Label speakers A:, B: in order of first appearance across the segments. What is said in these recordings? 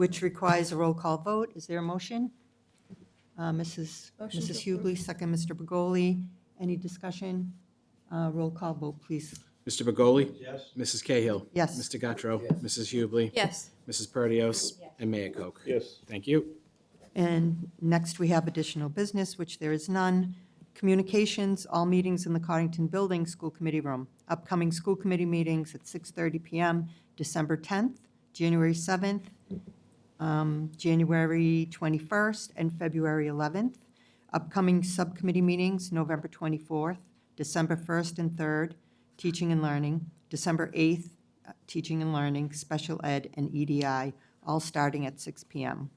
A: which requires a roll call vote. Is there a motion? Uh, Mrs.
B: Motion to
A: Mrs. Hubley, second Mr. Bergoli. Any discussion? Uh, Roll call vote, please.
C: Mr. Begoli? Yes. Mrs. Cahill?
A: Yes.
C: Mr. Guttrow? Mrs. Hubley?
B: Yes.
C: Mrs. Perdios? And Mayor Koch?
D: Yes.
C: Thank you.
A: And next, we have additional business, which there is none. Communications, all meetings in the Cottington Building School Committee Room. Upcoming school committee meetings at 6:30 PM, December 10th, January 7th, um, January 21st, and February 11th. Upcoming subcommittee meetings, November 24th, December 1st and 3rd, teaching and learning, December 8th, uh, teaching and learning, special ed, and EDI, all starting at 6 PM.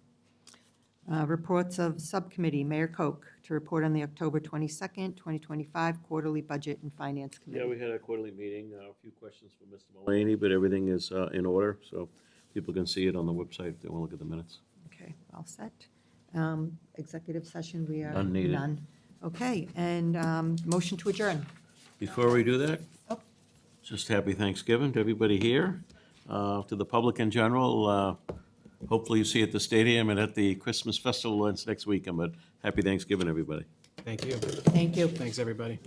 A: Uh, Reports of Subcommittee, Mayor Koch, to report on the October 22nd, 2025 Quarterly Budget and Finance
D: Yeah,
A: Committee.
D: we had a quarterly meeting, uh, a few questions for Mr. Mullaney, but everything is uh, in order, so people can see it on the website if they want to look at the minutes.
A: Okay, all set. Um, Executive session, we are.
D: None needed.
A: None. Okay, and um, motion to adjourn.
D: Before we do that,
A: Oh.
D: just happy Thanksgiving to everybody here, uh, to the public in general. uh, Hopefully you see at the stadium and at the Christmas festival ends next weekend, but happy Thanksgiving, everybody.
C: Thank you.
A: Thank you.
C: Thanks, everybody.